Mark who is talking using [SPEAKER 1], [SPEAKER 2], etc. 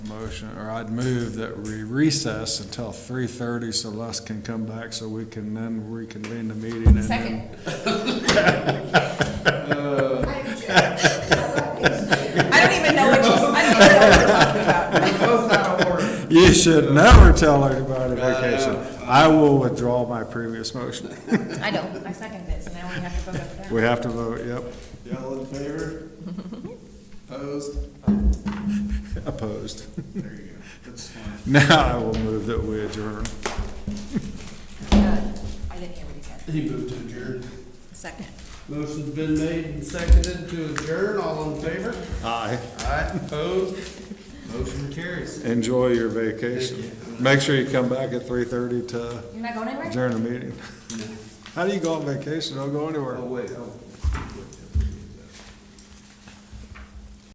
[SPEAKER 1] motion, or I'd move that we recess until three thirty so Les can come back so we can then reconvene the meeting and then.
[SPEAKER 2] Second.
[SPEAKER 1] Uh,
[SPEAKER 2] I don't even know what you, I don't even know what we're talking about.
[SPEAKER 1] You should never tell anybody vacation. I will withdraw my previous motion.
[SPEAKER 2] I know, I second it, so now we have to vote up there.
[SPEAKER 1] We have to vote, yep,
[SPEAKER 3] Y'all in favor? Opposed?
[SPEAKER 1] opposed.
[SPEAKER 3] There you go. That's fine.
[SPEAKER 1] Now I will move that we adjourn.
[SPEAKER 2] Uh, I didn't hear what he said.
[SPEAKER 3] He moved to adjourn.
[SPEAKER 2] Second.
[SPEAKER 3] Motion's been made and seconded to adjourn. All in favor?
[SPEAKER 1] Aye.
[SPEAKER 3] Aye. Opposed? Motion carries.
[SPEAKER 1] Enjoy your vacation. Make sure you come back at three thirty to
[SPEAKER 2] You're not going anywhere?
[SPEAKER 1] adjourn the meeting. How do you go on vacation? Don't go anywhere.
[SPEAKER 3] Oh, wait, oh.